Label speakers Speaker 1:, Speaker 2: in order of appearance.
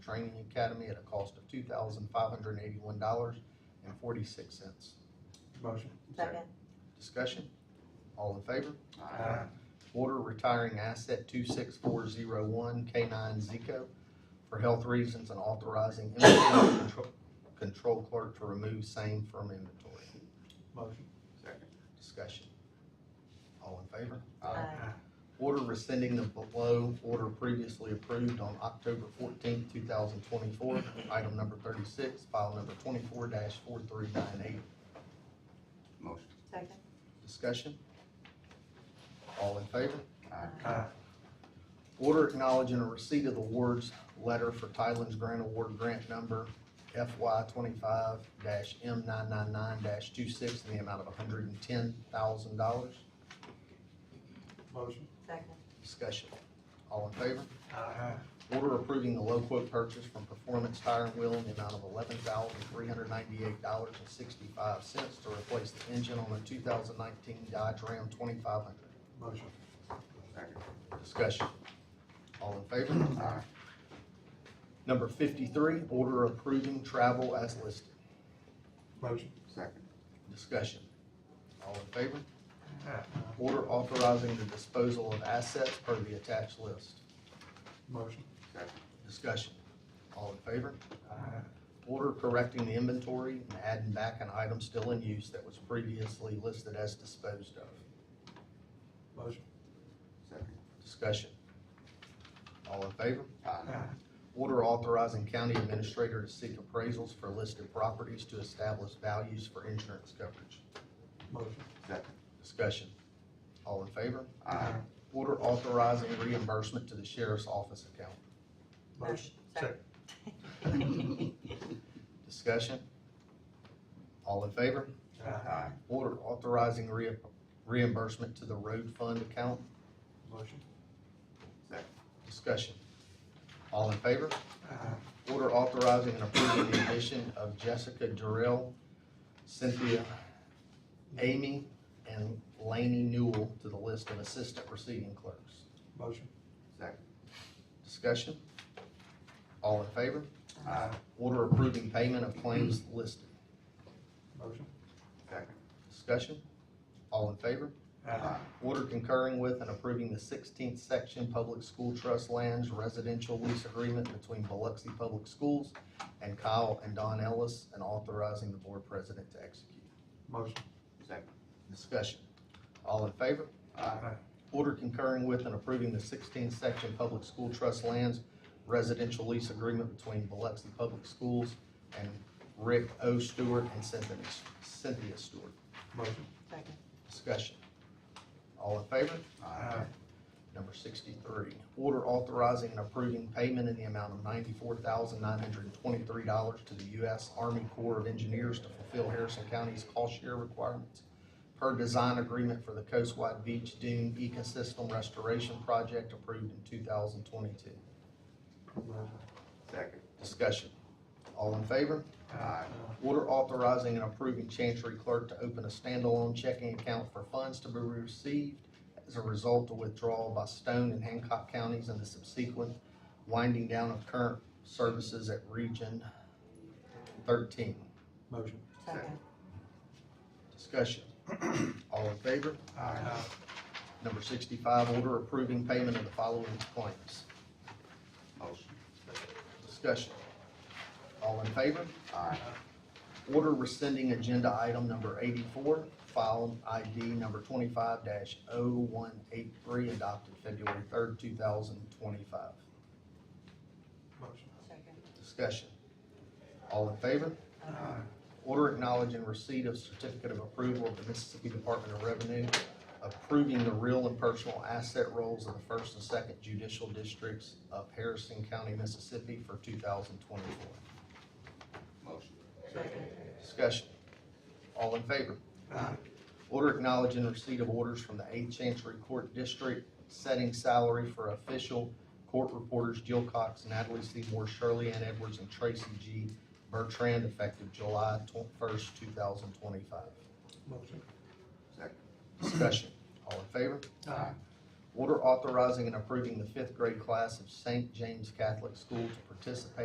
Speaker 1: Training Academy at a cost of two thousand five hundred and eighty-one dollars and forty-six cents.
Speaker 2: Motion.
Speaker 3: Second.
Speaker 1: Discussion? All in favor?
Speaker 2: Aye.
Speaker 1: Order retiring asset two six four zero one K nine Zico for health reasons and authorizing inventory control- control clerk to remove same from inventory.
Speaker 2: Motion.
Speaker 1: Discussion. All in favor?
Speaker 3: Aye.
Speaker 1: Order rescinding the below order previously approved on October fourteenth, two thousand twenty-four, item number thirty-six, file number twenty-four four three nine eight.
Speaker 4: Motion.
Speaker 3: Second.
Speaker 1: Discussion? All in favor?
Speaker 2: Aye.
Speaker 1: Order acknowledging a receipt of the awards letter for Tylen's Grant Award Grant Number FY twenty-five M nine nine nine 26 in the amount of hundred and ten thousand dollars.
Speaker 2: Motion.
Speaker 3: Second.
Speaker 1: Discussion? All in favor?
Speaker 2: Aye.
Speaker 1: Order approving the low quote purchase from Performance Tire and Wheel in the amount of eleven thousand three hundred ninety-eight dollars and sixty-five cents to replace the engine on a two thousand nineteen Dodge Ram twenty-five hundred.
Speaker 2: Motion.
Speaker 4: Second.
Speaker 1: Discussion. All in favor? Number fifty-three, order approving travel as listed.
Speaker 2: Motion.
Speaker 4: Second.
Speaker 1: Discussion. All in favor?
Speaker 2: Aye.
Speaker 1: Order authorizing the disposal of assets per the attached list.
Speaker 2: Motion.
Speaker 4: Second.
Speaker 1: Discussion. All in favor?
Speaker 2: Aye.
Speaker 1: Order correcting the inventory and adding back an item still in use that was previously listed as disposed of.
Speaker 2: Motion.
Speaker 4: Second.
Speaker 1: Discussion. All in favor?
Speaker 4: Aye.
Speaker 1: Order authorizing county administrator to seek appraisals for listed properties to establish values for insurance coverage.
Speaker 2: Motion.
Speaker 4: Second.
Speaker 1: Discussion. All in favor?
Speaker 4: Aye.
Speaker 1: Order authorizing reimbursement to the sheriff's office account.
Speaker 2: Motion.
Speaker 3: Second.
Speaker 1: Discussion. All in favor?
Speaker 2: Aye.
Speaker 4: Aye.
Speaker 1: Order authorizing rea- reimbursement to the road fund account.
Speaker 2: Motion.
Speaker 4: Second.
Speaker 1: Discussion. All in favor?
Speaker 2: Aye.
Speaker 1: Order authorizing and approving the addition of Jessica Durrell, Cynthia Amy, and Laney Newell to the list of assistant receiving clerks.
Speaker 2: Motion.
Speaker 4: Second.
Speaker 1: Discussion? All in favor?
Speaker 4: Aye.
Speaker 1: Order approving payment of claims listed.
Speaker 2: Motion.
Speaker 4: Second.
Speaker 1: Discussion? All in favor?
Speaker 2: Aye.
Speaker 1: Order concurring with and approving the sixteenth section Public School Trust Lands Residential Lease Agreement between Biloxi Public Schools and Kyle and Don Ellis, and authorizing the board president to execute.
Speaker 2: Motion.
Speaker 4: Second.
Speaker 1: Discussion. All in favor?
Speaker 2: Aye.
Speaker 1: Order concurring with and approving the sixteenth section Public School Trust Lands Residential Lease Agreement between Biloxi Public Schools and Rick O. Stewart and Cynthia Cynthia Stewart.
Speaker 2: Motion.
Speaker 3: Second.
Speaker 1: Discussion. All in favor?
Speaker 4: Aye.
Speaker 1: Number sixty-three, order authorizing and approving payment in the amount of ninety-four thousand nine hundred and twenty-three dollars to the U.S. Army Corps of Engineers to fulfill Harrison County's cost share requirements per design agreement for the Coastwide Beach Dune Ecosystem Restoration Project approved in two thousand twenty-two.
Speaker 2: Motion.
Speaker 4: Second.
Speaker 1: Discussion. All in favor?
Speaker 4: Aye.
Speaker 1: Order authorizing and approving Chancery Clerk to open a standalone checking account for funds to be received as a result of withdrawal by Stone and Hancock counties and the subsequent winding down of current services at Region thirteen.
Speaker 2: Motion.
Speaker 3: Second.
Speaker 1: Discussion. All in favor?
Speaker 2: Aye.
Speaker 1: Number sixty-five, order approving payment of the following claims.
Speaker 4: Motion.
Speaker 1: Discussion. All in favor?
Speaker 4: Aye.
Speaker 1: Order rescinding agenda item number eighty-four, file ID number twenty-five oh 183 adopted February third, two thousand twenty-five.
Speaker 2: Motion.
Speaker 3: Second.
Speaker 1: Discussion. All in favor?
Speaker 2: Aye.
Speaker 1: Order acknowledging receipt of certificate of approval of the Mississippi Department of Revenue approving the real and personal asset rolls of the first and second judicial districts of Harrison County, Mississippi for two thousand twenty-four.
Speaker 4: Motion.
Speaker 3: Second.
Speaker 1: Discussion. All in favor?
Speaker 2: Aye.
Speaker 1: Order acknowledging receipt of orders from the Eighth Chancery Court District setting salary for official court reporters Jill Cox, Natalie Seymour, Shirley Ann Edwards, and Tracy G. Bertrand effective July first, two thousand twenty-five.
Speaker 2: Motion.
Speaker 4: Second.
Speaker 1: Discussion. All in favor?
Speaker 2: Aye.
Speaker 1: Order authorizing and approving the fifth grade class of St. James Catholic School to participate